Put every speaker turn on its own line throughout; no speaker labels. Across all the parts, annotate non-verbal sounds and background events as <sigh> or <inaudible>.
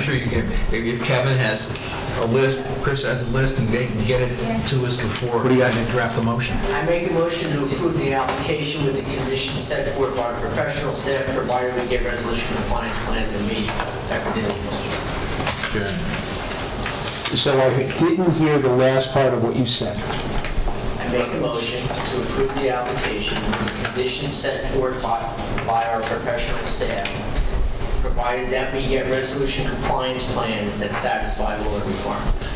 sure you can, if if Kevin has a list, Chris has a list, and they can get it to us before. What do you got? Draft a motion.
I make a motion to approve the application with the conditions set forth by professional staff, provided we get resolution compliance plans and meet that
So I didn't hear the last part of what you said.
I make a motion to approve the application with the conditions set forth by, by our professional staff, provided that we get resolution compliance plans that satisfy all the requirements.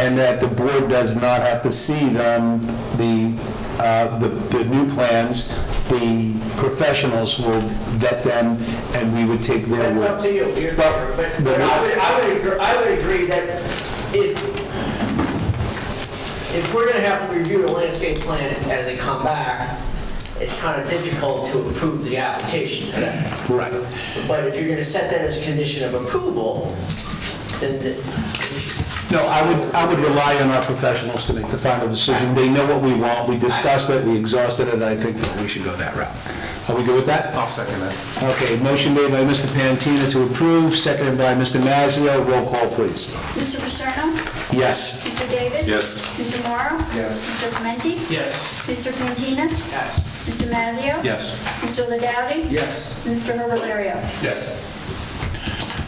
And that the board does not have to see them, the, uh, the the new plans, the professionals will vet them, and we would take their word.
That's up to you, You're-
But-
but, but I would, I would, agr- I would agree that if, if we're gonna have to review the landscape plans as they come back, it's kind of difficult to approve the application for that.
Right.
But if you're gonna set that as a condition of approval, then the-
No, I would, I would rely on our professionals to make the final decision. They know what we want, we discussed it, we exhausted it, I think that we should go that route. Are we good with that?
I'll second that.
Okay, motion made by Mr. Pantina to approve, seconded by Mr. Mazzio. Roll call, please.
Mr. Paterno?
Yes.
Mr. David?
Yes.
Mr. Morrow?
Yes.
Mr. Clementi?
Yes.
Mr. Pantina?
Yes.
Mr. Mazzio?
Yes.
Mr. Ladowdy?
Yes.
Mr. Herbalario?
Yes.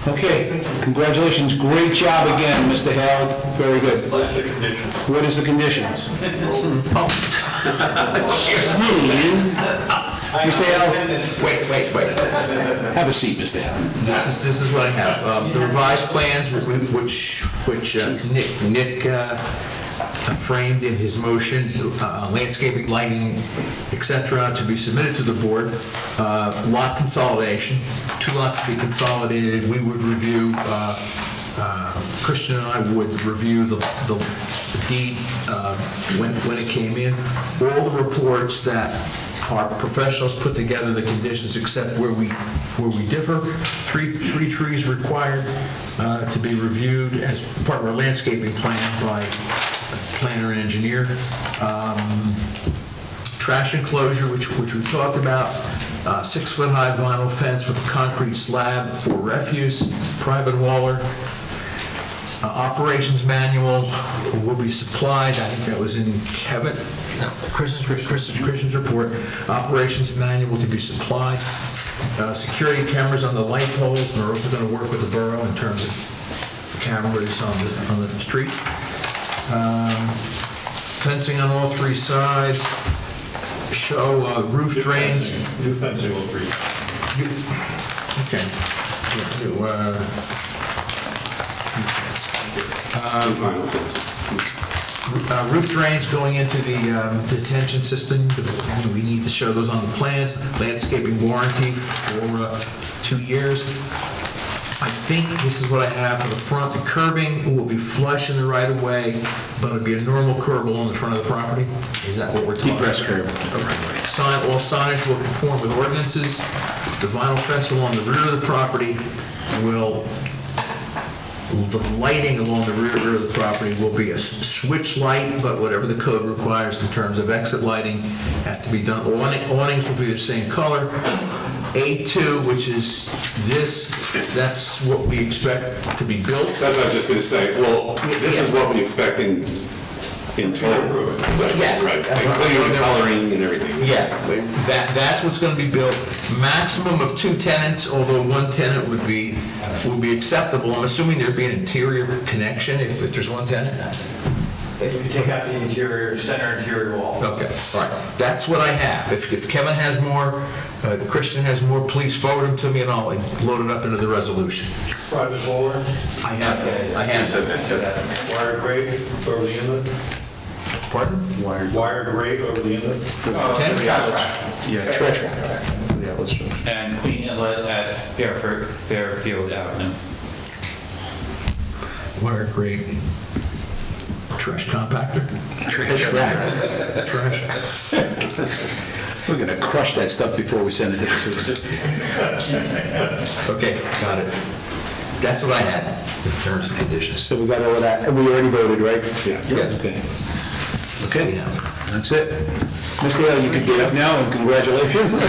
Okay, congratulations, great job again, Mr. Hale, very good. What is the conditions? Please. Mr. Hale,
Wait, wait, wait.
have a seat, Mr. Hale.
This is, this is what I have. Um, The revised plans, wh- wh- which, which uh, Nick, Nick uh, framed in his motion, uh, landscaping, lighting, et cetera, to be submitted to the board. Uh, Lot consolidation, two lots to be consolidated. We would review, uh, uh, Christian and I would review the the deed uh, when when it came in. All the reports that our professionals put together the conditions except where we, where we differ. Three, three trees required uh, to be reviewed as part of our landscaping plan by planner and engineer. Um, Trash enclosure, which, which we talked about, uh, six-foot-high vinyl fence with a concrete slab for refuse, private waller, uh, Operations manual will be supplied, I think that was in Kevin, no, Chris's, Chris's, Christian's report. Operations manual to be supplied. Uh, Security cameras on the light poles, and we're also gonna work with the borough in terms of cameras on the, on the street. Um, Fencing on all three sides, show uh, roof drains.
New fencing will be.
Okay. Yeah, you, uh,
Vinyl fencing.
Uh, Roof drains going into the um, detention system, we need to show those on the plans, landscaping warranty for uh, two years. I think this is what I have for the front, the curbing will be flush in the right of way, but it'll be a normal curb along the front of the property, is that what we're talking about?
Depressed curb.
Sign, all signage will conform with ordinances, the vinyl fence along the rear of the property will the lighting along the rear of the property will be a s- switch light, but whatever the code requires in terms of exit lighting has to be done. Awning- Awnings will be the same color. A2, which is this, that's what we expect to be built.
That's what I was just gonna say, well, this is what we expect in, in total.
Yes.
Right, including the coloring and everything.
Yeah, that, that's what's gonna be built. Maximum of two tenants, although one tenant would be, would be acceptable. I'm assuming there'd be an interior connection if if there's one tenant.
that you could take out the interior, center interior wall.
Okay, all right. That's what I have. If if Kevin has more, uh, Christian has more, please forward them to me and I'll load it up into the resolution.
Private bowler,
I have, I have.
wired grate over the inlet,
Pardon?
wired grate over the inlet.
Ten?
Yeah.
Trash wrap.
and clean inlet at Fairfield, Fairfield Avenue.
Wire grate. Trash compactor?
Trash rack.
Trash.
We're gonna crush that stuff before we send it to the sewer.
Okay, got it. That's what I had in terms of conditions.
So we got all of that, and we already voted, right?
Yeah.
Yes.
Okay.
Yeah.
Okay, that's it. Mr. Hale, you can get up now, and congratulations. <laughs>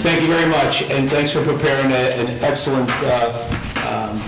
Thank you very much, and thanks for preparing a- an excellent uh,